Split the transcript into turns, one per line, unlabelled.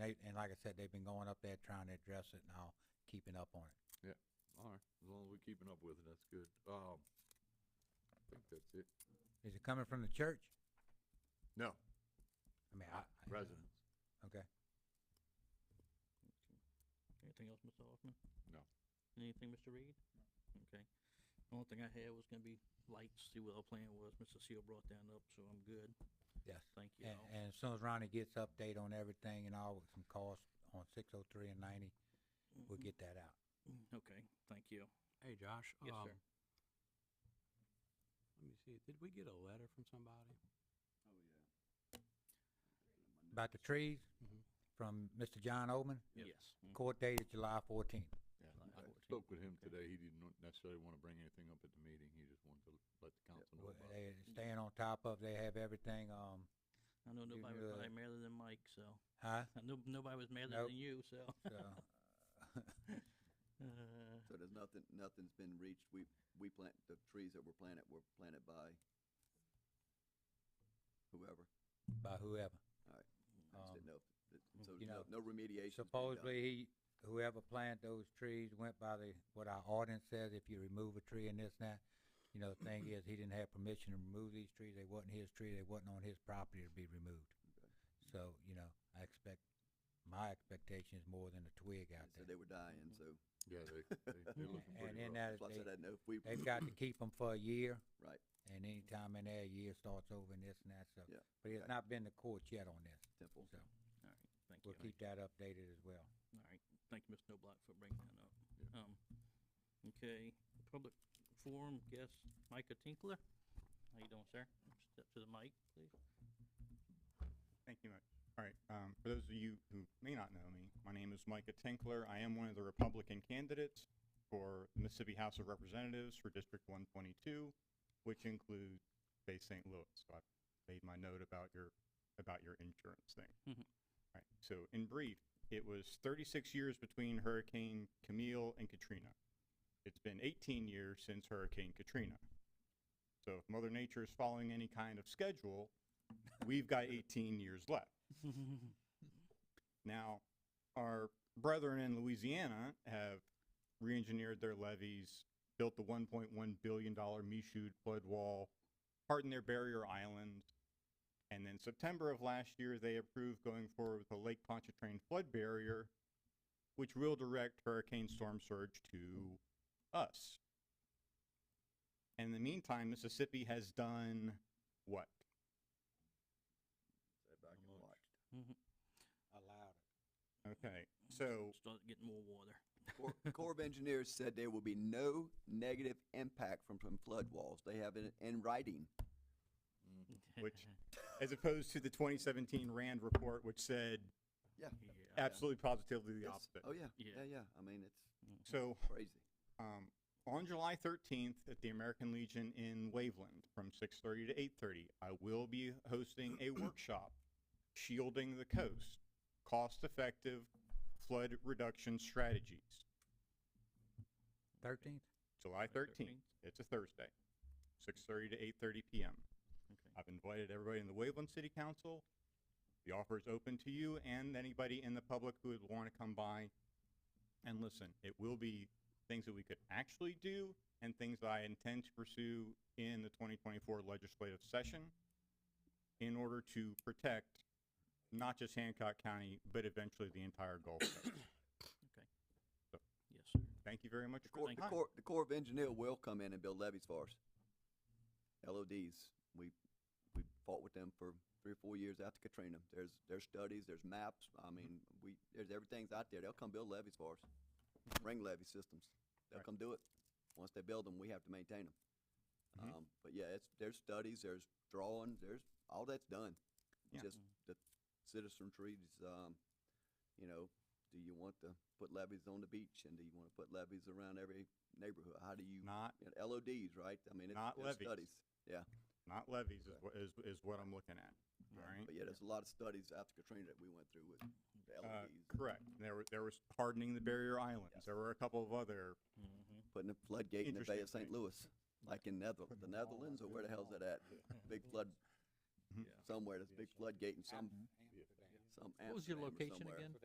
they, and like I said, they've been going up there trying to address it and all, keeping up on it.
Alright, as long as we're keeping up with it, that's good. Um, I think that's it.
Is it coming from the church?
No,
I mean, I. I-
residents.
Okay.
Anything else, Mr. Hoffman?
No.
Anything, Mr. Reed? Okay. The Only thing I had was gonna be lights, see what our plan was. Mr. Seal brought that up, so I'm good.
Yes.
Thank you
And,
all.
and as soon as Ronnie gets update on everything and all with some costs on six oh three and ninety, we'll
Mhm.
get that out.
Mm-hmm. Okay, thank you.
Hey, Josh.
Yes,
um,
sir.
Let me see, did we get a letter from somebody?
About the trees,
Mhm.
from Mr. John Oman,
Yes.
Yes. mm,
court date is July fourteenth.
Yeah,
July
I
14th,
spoke with him
okay.
today. He didn't want- necessarily wanna bring anything up at the meeting. He just wanted to let the council know about it.
They're staying on top of, they have everything, um,
I know
You
nobody
knew
was
that.
probably madder than Mike, so,
huh?
I know nobody was madder
uh, Nope.
than you, so.
So,
Uh,
So there's nothing, nothing's been reached, we, we plant, the trees that were planted were planted by whoever,
by whoever.
I just
Um,
didn't know, if that- so
you
no,
know,
no remediation.
Supposedly, he, whoever planted those trees went by the, what our ordinance says, if you remove a tree and this and that. You know, the thing is, he didn't have permission to remove these trees, they wasn't his tree, they wasn't on his property to be removed. So, you know, I expect, my expectation is more than a twig out
So
there.
they were dying, so,
Yeah, they, they, they're looking
And
pretty
in
rough.
that,
plus I
they,
didn't know if we,
they've got to keep them for a year.
Right.
And anytime in there, a year starts over and this and that, so.
Yeah,
But it's
okay.
not been to court yet on this,
temple,
so
Thank
we'll
you.
keep that updated as well.
All right, thank you, Mr. Noblock, for bringing that up.
Yeah.
Um, okay, public forum guest Micah Tinkler. How you doing, sir? Step to the mic, please.
Thank you much. All right, um, for those of you who may not know me, my name is Micah Tinkler. I am one of the Republican candidates for the Mississippi House of Representatives for District one twenty-two, which includes Bay St. Louis. So I made my note about your, about your insurance thing.
Mhm.
All right, so in brief, it was thirty-six years between Hurricane Camille and Katrina. It's been eighteen years since Hurricane Katrina. So if Mother Nature is following any kind of schedule, we've got 18 years left. Now, our brethren in Louisiana have re-engineered their levees, built the 1.1 billion dollar Michoud flood wall, hardened their barrier island, and then September of last year they approved going forward with the Lake Pontchartrain flood barrier, which will direct hurricane storm surge to us. And in the meantime, Mississippi has done what?
sat back and
Mulch.
watched.
Allowed.
Okay, so
Start getting more water.
Cor- Corps of Engineers said there will be no negative impact from, from flood walls, they have it in writing.
Which- as opposed to the 2017 Rand report, which said
Yeah,
absolutely positively the
Yes.
opposite.
Oh, yeah,
Yeah.
yeah, yeah, I mean, it's
mhm.
So
crazy.
um, on July 13th at the American Legion in Waveland from 6:30 to 8:30, I will be hosting a workshop, shielding the coast, cost-effective flood reduction strategies.
Thirteenth?
July 13th. It's a Thursday, 6:30 to 8:30 p.m.
Okay.
I've invited everybody in the Waveland City Council. The offer is open to you and anybody in the public who would want to come by and listen. It will be things that we could actually do and things that I intend to pursue in the 2024 legislative session in order to protect not just Hancock County, but eventually the entire Gulf Coast.
Yes, sir.
Thank you very much
The
for
Corps,
your
the
time.
Corps, the Corps of Engineer will come in and build levees for us. LODs, we, we fought with them for three or four years after Katrina. There's, there's studies, there's maps, I mean, we, there's, everything's out there. They'll come build levees for us. Ring levee systems. They'll
Right.
come do it. Once they build them, we have to maintain them.
Mhm.
Um, but yeah, it's, there's studies, there's drawings, there's, all that's done.
Yeah. Mm-hmm.
Just the citizenry, is, um, you know, do you want to put levees on the beach and do you want to put levees around every neighborhood? How do you,
Not,
you know, LODs, right? I mean, it's,
Not
there's
levees.
studies.
not levies is, what- is, is what I'm looking at, all right?
But yeah, there's a lot of studies after Katrina that we went through with the
Uh,
LEDs,
Correct. There were, there was hardening the barrier islands.
Yes.
There were a couple of other,
Mhm.
putting a floodgate in the Bay of
Interesting
St. Louis, like in Nether, the Netherlands, or where the hell's that at? Big flood,
Mhm.
somewhere, there's a big floodgate in some, Some
What was your
Amsterdam or
location
somewhere.
again?